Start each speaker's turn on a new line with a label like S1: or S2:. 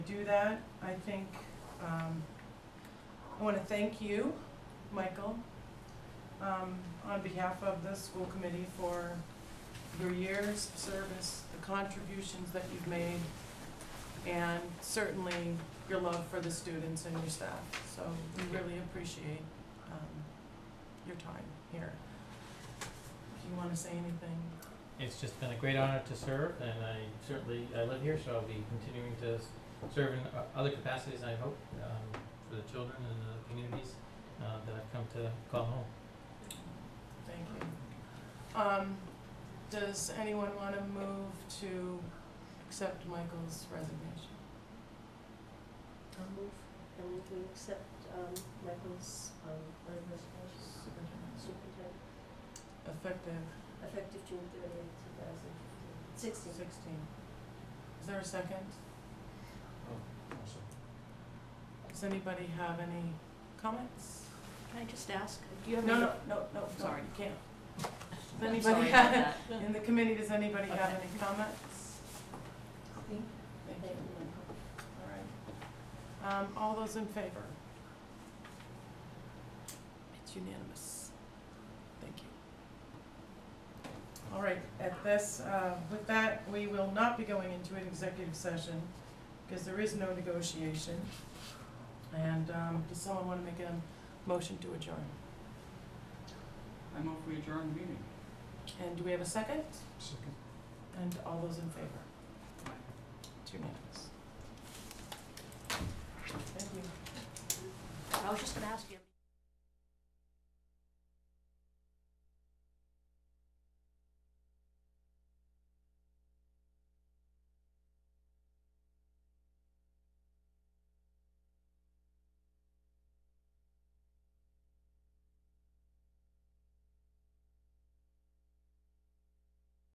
S1: do that. I think, um, I want to thank you, Michael, um, on behalf of the school committee for your years of service, the contributions that you've made, and certainly your love for the students and your staff. So we really appreciate, um, your time here. If you want to say anything,
S2: It's just been a great honor to serve, and I certainly, I live here, so I'll be continuing to s- serve in o- other capacities, I hope, um, for the children and the communities, uh, that I've come to call home.
S1: thank you. Um, does anyone want to move to accept Michael's resignation?
S3: I'll move, and we can accept um, Michael's um, resignation as superintendent,
S1: Effective
S3: effective June thirtieth, two thousand sixteen.
S1: sixteen. Is there a second? Does anybody have any comments?
S3: Can I just ask, do you
S1: No, no, no, no, sorry,
S3: Sorry.
S1: you can't. Does anybody have, in the committee, does anybody have
S3: Okay.
S1: any comments? Thank you. All right. Um, all those in favor? It's unanimous. Thank you. All right, at this, uh, with that, we will not be going into an executive session because there is no negotiation. And, um, does someone want to make a motion to adjourn?
S4: I move we adjourn the meeting.
S1: And do we have a second? And all those in favor? It's unanimous. Thank you.
S3: I was just gonna ask you.